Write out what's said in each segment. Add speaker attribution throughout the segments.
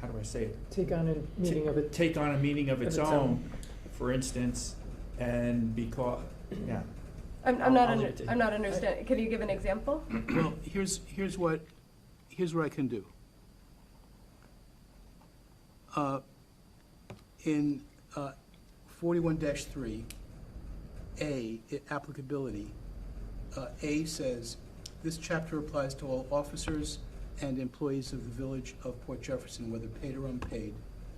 Speaker 1: how do I say it?
Speaker 2: Take on a meaning of it.
Speaker 1: Take on a meaning of
Speaker 2: Of
Speaker 1: its
Speaker 2: its
Speaker 1: own,
Speaker 2: own.
Speaker 1: for instance, and because,
Speaker 2: Mm-hmm.
Speaker 1: yeah.
Speaker 3: I'm, I'm not,
Speaker 1: I'll
Speaker 3: under-
Speaker 1: leave it to you.
Speaker 3: I'm not understanding, can you give an example?
Speaker 4: Well, here's, here's what, here's what I can do. Uh, In uh, forty-one three, A, i- applicability, uh, A says, "This chapter applies to all officers and employees of the Village of Port Jefferson, whether paid or unpaid,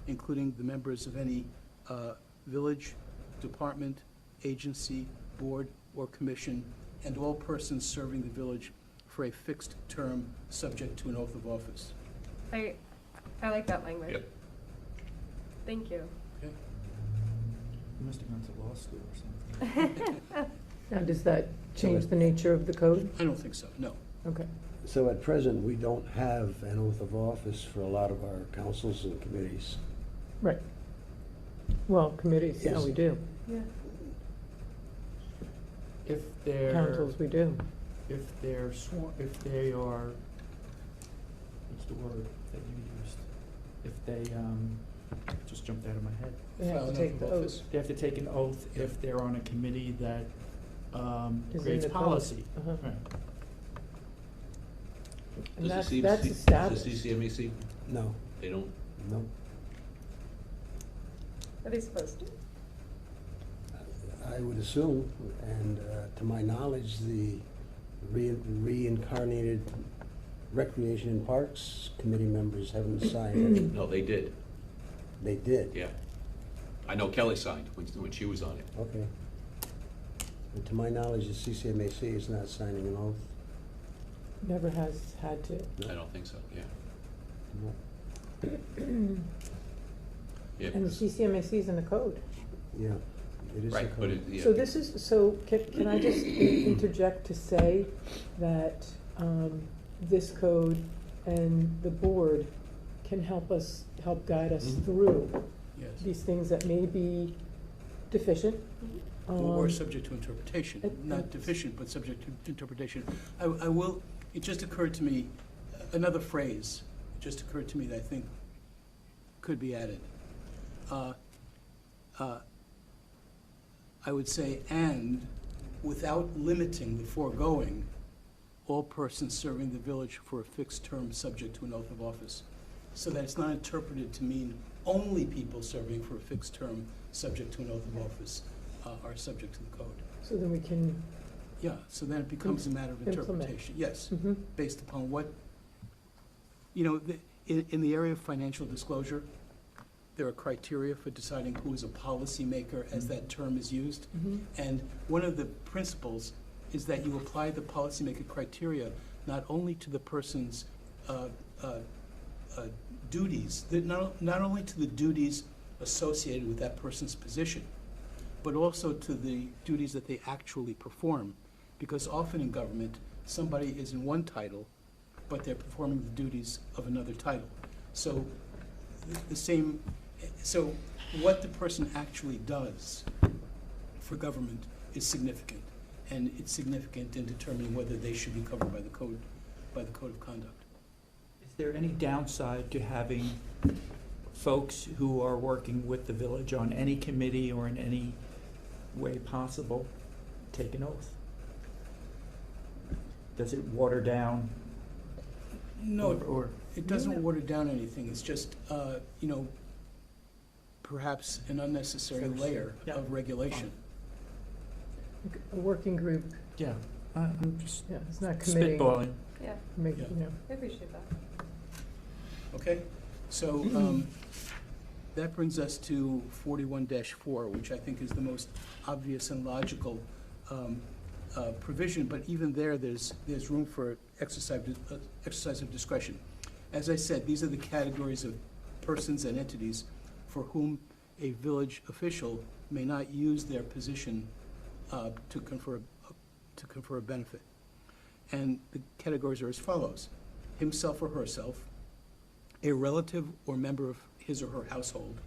Speaker 4: including the members of any uh, village, department, agency, board, or commission, and all persons serving the village for a fixed term, subject to an oath of office."
Speaker 3: I, I like that language. Thank you.
Speaker 4: Okay?
Speaker 1: You must have gone to law school or something.
Speaker 2: Now, does that change the nature of the code?
Speaker 4: I don't think so, no.
Speaker 2: Okay.
Speaker 5: So at present, we don't have an oath of office for a lot of our councils and committees.
Speaker 2: Right. Well, committees, yeah,
Speaker 5: Yes.
Speaker 2: we do.
Speaker 3: Yeah.
Speaker 1: If they're,
Speaker 2: Councils, we do.
Speaker 1: if they're sworn, if they are, what's the word that you used? If they, um, just jumped out of my head.
Speaker 2: They have
Speaker 4: File
Speaker 2: to
Speaker 4: an
Speaker 2: take
Speaker 4: oath
Speaker 2: the
Speaker 4: of
Speaker 2: oath.
Speaker 4: office.
Speaker 1: They have to take an oath if they're on a committee that, um,
Speaker 2: Is in
Speaker 1: creates
Speaker 2: the code.
Speaker 1: policy.
Speaker 2: Uh-huh.
Speaker 1: Right.
Speaker 2: And
Speaker 6: Does
Speaker 2: that's,
Speaker 6: the
Speaker 2: that's
Speaker 6: CBC Does the
Speaker 2: established.
Speaker 6: CCMAC,
Speaker 5: No,
Speaker 6: they don't,
Speaker 5: no.
Speaker 3: Are they supposed to?
Speaker 5: I would assume, and uh, to my knowledge, the re- reincarnated Recreation and Parks Committee members haven't signed it.
Speaker 6: no, they did,
Speaker 5: They did?
Speaker 6: yeah. I know Kelly signed when, when she was on it.
Speaker 5: Okay. And to my knowledge, the CCMAC is not signing an oath.
Speaker 2: Never has had to.
Speaker 6: I don't think so, yeah.
Speaker 5: No.
Speaker 6: Yeah,
Speaker 2: And the
Speaker 6: because-
Speaker 2: CCMAC is in the code.
Speaker 5: Yeah, it is a
Speaker 6: right, but it,
Speaker 5: code.
Speaker 6: yeah.
Speaker 2: So this is, so can, can I just interject to say that, um, this code and the board can help us, help guide us
Speaker 5: Mhm.
Speaker 2: through
Speaker 4: Yes.
Speaker 2: these things that may be deficient.
Speaker 4: Or or
Speaker 2: um,
Speaker 4: subject to interpretation,
Speaker 2: it-
Speaker 4: not
Speaker 2: it-
Speaker 4: deficient, but subject to interpretation. I, I will, it just occurred to me, another phrase just occurred to me that I think could be added. Uh, uh, I would say, and without limiting the foregoing, all persons serving the village for a fixed term subject to an oath of office. So that it's not interpreted to mean only people serving for a fixed term subject to an oath of office uh, are subject to the code.
Speaker 2: um, So then we can,
Speaker 4: Yeah, so then it becomes a matter of
Speaker 2: Implement.
Speaker 4: interpretation. Yes,
Speaker 2: mhm,
Speaker 4: based upon what, you know, the- in, in the area of financial disclosure, there are criteria for deciding who is a policymaker as that term is used.
Speaker 2: mhm.
Speaker 4: And one of the principles is that you apply the policymaker criteria not only to the person's uh, uh, uh, duties, that not, not only to the duties associated with that person's position, but also to the duties that they actually perform. Because often in government, somebody is in one title, but they're performing the duties of another title. So th- the same, so what the person actually does for government is significant, and it's significant in determining whether they should be covered by the code, by the code of conduct.
Speaker 1: Is there any downside to having folks who are working with the village on any committee or in any way possible take an oath? Does it water down?
Speaker 4: No,
Speaker 1: or- Or,
Speaker 4: It doesn't water down anything, it's just, uh, you know, perhaps an unnecessary
Speaker 1: Fix.
Speaker 4: layer
Speaker 1: Yeah.
Speaker 4: of regulation.
Speaker 2: Like A working group,
Speaker 1: yeah, I- I'm just
Speaker 2: yeah, it's not committing,
Speaker 1: spitballing.
Speaker 3: Yeah,
Speaker 2: make,
Speaker 4: Yeah.
Speaker 2: you know,
Speaker 3: I appreciate that.
Speaker 4: Okay, so, um, that brings us to forty-one four, which I think is the most obvious and logical, um, uh, provision, but even there, there's, there's room for exercise, uh, exercise of discretion. As I said, these are the categories of persons and entities for whom a village official may not use their position, uh, to confer, to confer a benefit. And the categories are as follows: himself or herself, a relative or member of his or her household,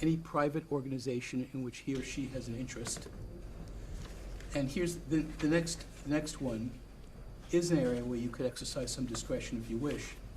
Speaker 4: any private organization in which he or she has an interest. And here's the, the next, the next one is an area where you could exercise some discretion if you wish.